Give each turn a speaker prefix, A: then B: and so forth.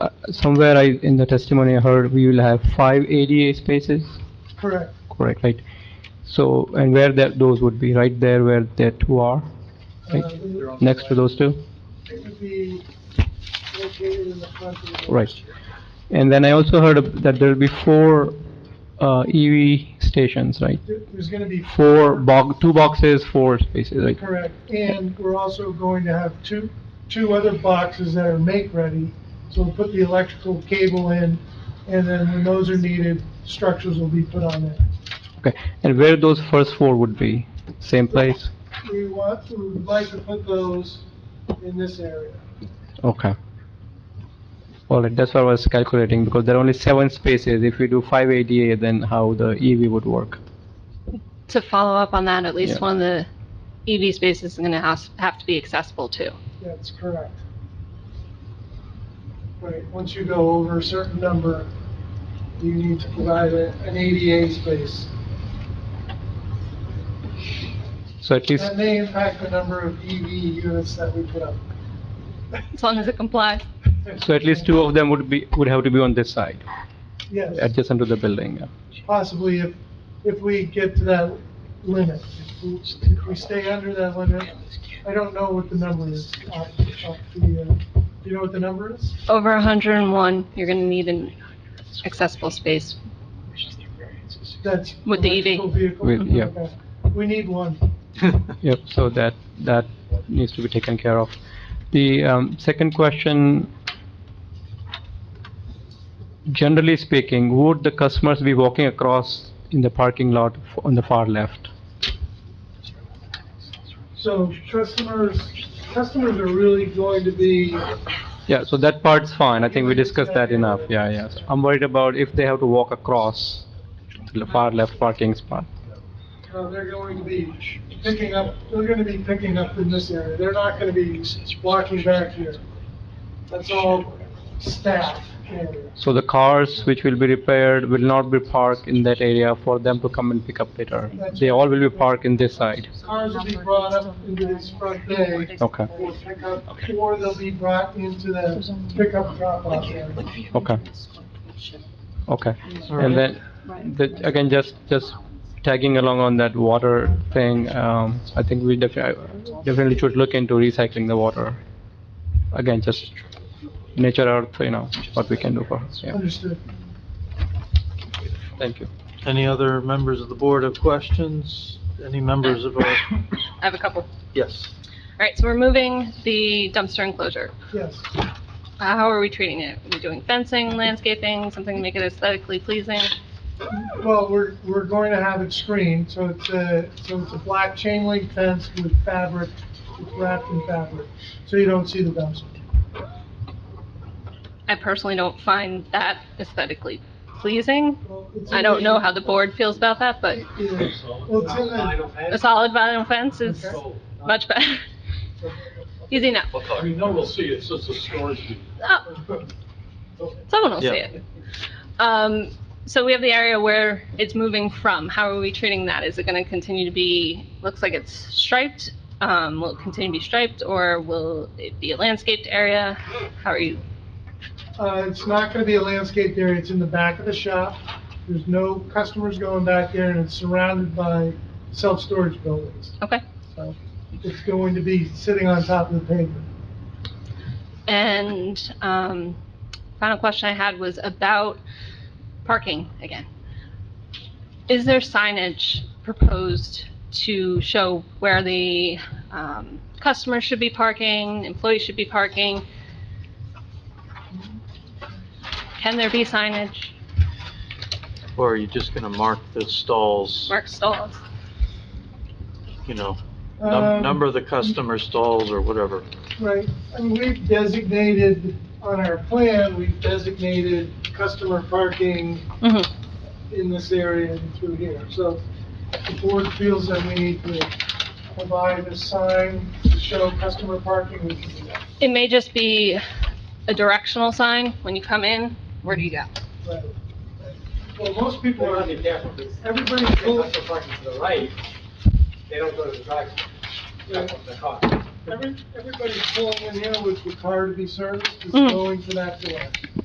A: Uh, somewhere I, in the testimony I heard, we will have five ADA spaces,
B: Correct.
A: correct, right? So, and where that, those would be, right there where the two are, right? Next to those two?
B: It would Uh, be located in the front of the building.
A: Right. And then I also heard of- that there'll be four, uh, EV stations, right?
B: There- There's gonna be
A: Four box, two boxes, four spaces, right?
B: Correct, and we're also going to have two, two other boxes that are make-ready, so we'll put the electrical cable in, and then when those are needed, structures will be put on it.
A: Okay, and where those first four would be? Same place?
B: We want, we would like to put those in this area.
A: Okay. All right, that's what I was calculating, because there are only seven spaces. If we do five ADA, then how the EV would work?
C: To follow up on that, at
A: Yeah.
C: least one of the EV spaces is going to have, have to be accessible too.
B: That's correct. Right, once you go over a certain number, you need to provide a- an ADA space.
A: So at least,
B: That may impact the number of EV units that we put up.
C: As long as it complies.
A: so at least two of them would be, would have to be on this side,
B: Yes.
A: adjacent to the building. yeah.
B: possibly if, if we get to that limit. If we- If we stay under that limit, I don't know what the number is. off- off the, uh, Do you know what the number is?
C: Over 101, you're going to need an accessible space.
B: That's.
C: With the E EV.
B: electrical vehicle?
A: With- yeah.
B: Okay. We need one.
A: Yep, so that, that needs to be taken care of. The um, second question, generally speaking, would the customers be walking across in the parking lot f- on the far left?
B: So customers, customers are really going to be,
A: Yeah, so that part's fine, I think we discussed that enough, yeah, yeah. So I'm worried about if they have to walk across to the far left parking spot.
B: uh, they're going to be picking up, they're gonna be picking up in this area. They're not gonna be walking back here. That's all staff area.
A: So the cars which will be repaired will not be parked in that area for them to come and pick up later. They all will be parked in this side.
B: Cars will be brought up into this front bay.
A: Okay,
B: for pickup, or they'll be brought into the pickup drop-off area.
A: okay, okay. And then, the- again, just, just tagging along on that water thing, um, I think we definitely, definitely should look into recycling the water. Again, just nature earth, you know, what we can do for, us. yeah,
B: Understood.
A: thank you.
D: Any other members of the board have questions? Any members of our,
C: I have a couple. All
D: yes.
C: right, so we're moving the dumpster enclosure.
B: Yes.
C: Uh, How are we treating it? Are we doing fencing, landscaping, something to make it aesthetically pleasing?
B: Well, we're, we're going to have it screened, so it's a, so it's a black chain link fence with fabric, it's wrapped in fabric, so you don't see the dumpster.
C: I personally don't find that aesthetically pleasing.
B: Well, it's
C: I
B: in
C: don't know how
B: the-
C: the board feels about that, but
B: Yeah. Well, it's in the,
C: a solid vinyl fence is much better. Easy enough.
E: I mean, no, we'll see, it's just a storage.
C: Oh, someone will see
D: Yeah.
C: it. Um, so we have the area where it's moving from. How are we treating that? Is it going to continue to be, looks like it's striped? Um, will it continue to be striped or will it be a landscaped area? How are you?
B: uh, it's not gonna be a landscaped area, it's in the back of the shop. There's no customers going back there, and it's surrounded by self-storage buildings.
C: Okay.
B: So It's going to be sitting on top of the pavement.
C: And um, final question I had was about parking again. Is there signage proposed to show where the um, customers should be parking, employees should be parking? Can there be signage,
D: Or are you just going to mark the stalls,
C: mark stalls?
D: you know,
B: Um,
D: num- number the customer stalls or whatever?
B: Right, and we've designated, on our plan, we've designated customer parking
C: Mhm.
B: in this area and through here. So the board feels that we need to provide a sign to show customer parking. we can do that.
C: It may just be a directional sign when you come in, where do you go?
B: Right. Well, most people
F: People
B: are,
F: want to be careful, because
B: everybody's
F: if they
B: cool.
F: park their parking to the right, they don't go to the drive, that's what they're caught.
B: Every- everybody's pulling in here with the car to be serviced, is
C: Mhm.
B: going to that door.